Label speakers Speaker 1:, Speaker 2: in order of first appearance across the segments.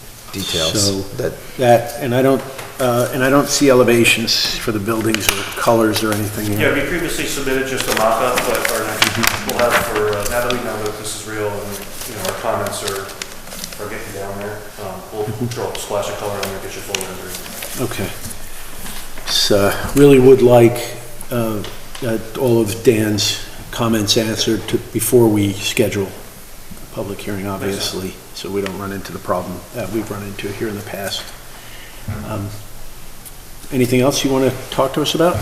Speaker 1: So-
Speaker 2: details that,
Speaker 1: That, and I don't, uh, and I don't see elevations for the buildings or colors or anything. in
Speaker 3: Yeah,
Speaker 1: it.
Speaker 3: we previously submitted just a mock-up, but our, we'll have for, uh, now that we know that this is real and, you know, our comments are, are getting down there, um, we'll draw a splash of color and we'll get you full rendering.
Speaker 1: Okay. So, really would like uh, that all of Dan's comments answered to- before we schedule a public hearing, obviously, so we don't run into the problem that we've run into here in the past. Um, Anything else you want to talk to us about?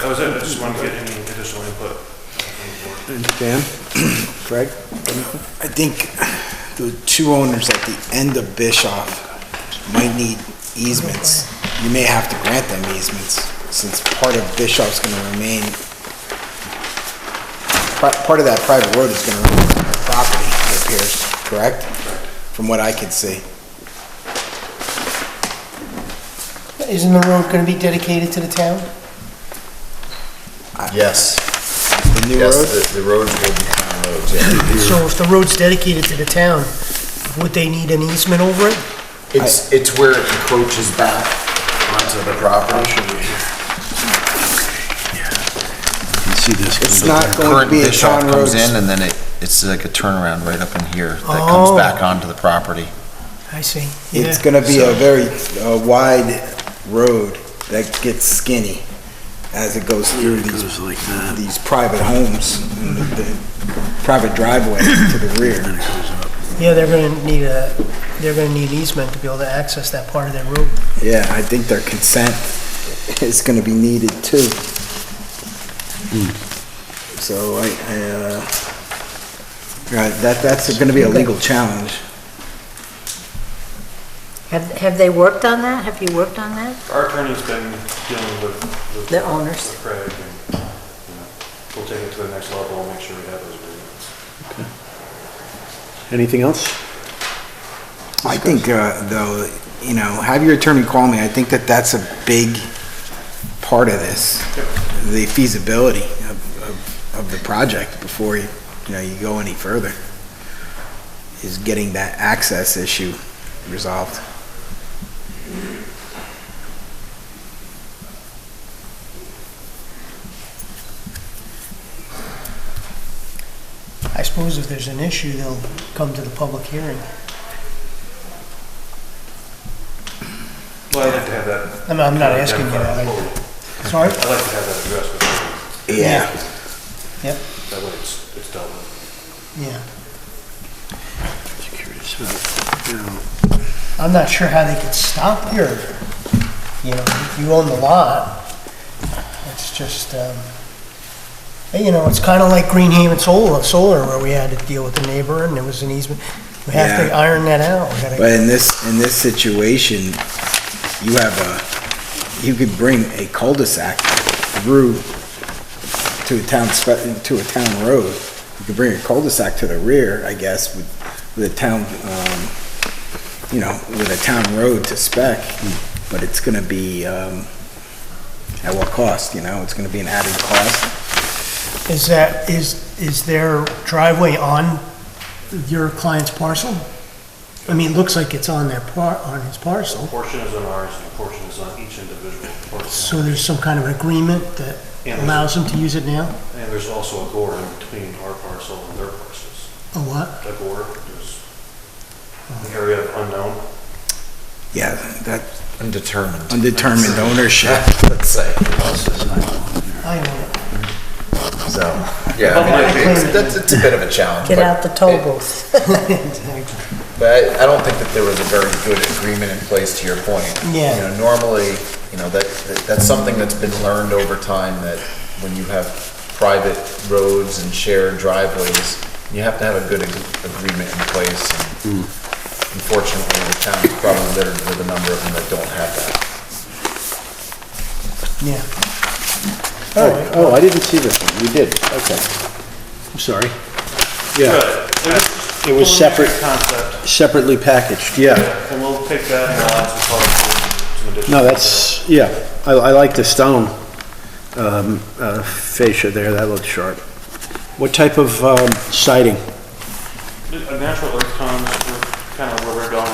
Speaker 3: That was it, I just wanted to get any additional input. from the board.
Speaker 1: Dan? Greg?
Speaker 4: I think the two owners at the end of Bischoff might need easements. You may have to grant them easements, since part of Bischoff's gonna remain, part part of that private road is gonna remain on their property, it appears, correct? From what I could see.
Speaker 5: Isn't the road gonna be dedicated to the town?
Speaker 2: yes,
Speaker 4: The new
Speaker 2: yes,
Speaker 4: road?
Speaker 2: the, the road will be town roads, yeah.
Speaker 5: So if the road's dedicated to the town, would they need an easement over it?
Speaker 2: It's, it's where it encroaches back onto the property.
Speaker 1: See this?
Speaker 4: It's not going to
Speaker 6: Current
Speaker 4: be a
Speaker 6: Bischoff
Speaker 4: town road.
Speaker 6: comes in and then it, it's like a turnaround right up in here that
Speaker 5: Oh.
Speaker 6: comes back onto the property.
Speaker 5: I see,
Speaker 4: It's
Speaker 5: yeah.
Speaker 4: gonna be a very uh, wide road that gets skinny as it goes through
Speaker 1: It
Speaker 4: these
Speaker 1: goes like that,
Speaker 4: these private homes, and the- the private driveway to the rear.
Speaker 1: and it goes up.
Speaker 5: Yeah, they're gonna need a, they're gonna need an easement to be able to access that part of their road.
Speaker 4: Yeah, I think their consent is gonna be needed too.
Speaker 1: Hmm.
Speaker 4: So I, I, uh, right, that, that's gonna be a legal challenge.
Speaker 7: Have, have they worked on that? Have you worked on that?
Speaker 3: Our attorney's been dealing with. with-
Speaker 7: The owners.
Speaker 3: With Craig, and, you know, we'll take it to the next level and make sure we have those agreements.
Speaker 1: Anything else?
Speaker 4: I think, uh, though, you know, have your attorney call me, I think that that's a big part of this, the feasibility of, of, of the project before you, you know, you go any further, is getting that access issue resolved.
Speaker 5: I suppose if there's an issue, they'll come to the public hearing.
Speaker 3: Well, I'd like to have that.
Speaker 5: I'm, I'm not asking you
Speaker 3: identified
Speaker 5: that.
Speaker 3: fully.
Speaker 5: I- Sorry?
Speaker 3: I'd like to have that addressed before,
Speaker 4: Yeah.
Speaker 5: Yep,
Speaker 3: that way it's, it's dealt with.
Speaker 5: yeah.
Speaker 1: Curious about, you know,
Speaker 5: I'm not sure how they could stop here. You know, you own the lot. It's just, um, you know, it's kind of like Green Haven Solar, Solar, where we had to deal with the neighbor and there was an easement. We have to
Speaker 4: Yeah.
Speaker 5: iron that out. We gotta-
Speaker 4: But in this, in this situation, you have a, you could bring a cul-de-sac through to a town, spe- to a town road. You could bring a cul-de-sac to the rear, I guess, with, with a town, um, you know, with a town road to spec, but it's gonna be, um, at what cost, you know? It's gonna be an added cost.
Speaker 5: Is that, is, is their driveway on your client's parcel? I mean, it looks like it's on their par, on his
Speaker 3: A
Speaker 5: parcel.
Speaker 3: portion is on ours and a portion is on each individual
Speaker 5: So
Speaker 3: parcel.
Speaker 5: there's some kind of agreement that
Speaker 3: Yeah.
Speaker 5: allows them to use it now?
Speaker 3: And there's also a gore in between our parcel and their parcels.
Speaker 5: A what?
Speaker 3: A gore is an area of unknown.
Speaker 4: Yeah, that
Speaker 6: Undetermined.
Speaker 4: undetermined ownership.
Speaker 2: Let's say,
Speaker 5: I own it.
Speaker 2: so, yeah, I mean, it's, that's, it's a bit of a challenge,
Speaker 7: Get
Speaker 2: but-
Speaker 7: out the toll booth.
Speaker 2: But I, I don't think that there was a very good agreement in place, to your point.
Speaker 5: Yeah.
Speaker 2: You know, normally, you know, that, that- that's something that's been learned over time, that when you have private roads and shared driveways, you have to have a good ag- agreement in place. And Unfortunately, the town is probably littered with a number of them that don't have that.
Speaker 5: Yeah.
Speaker 1: Oh, oh, I didn't see this one, you did, okay. I'm sorry. Yeah,
Speaker 3: It
Speaker 1: It was separate.
Speaker 3: Concept,
Speaker 1: separately packaged, yeah.
Speaker 3: and we'll take that and we'll add some color to some additional.
Speaker 1: No, that's, yeah, I, I like the stone um, uh, fascia there, that looks sharp. What type of um, siding?
Speaker 3: A natural earth tones, we're kind of where we're going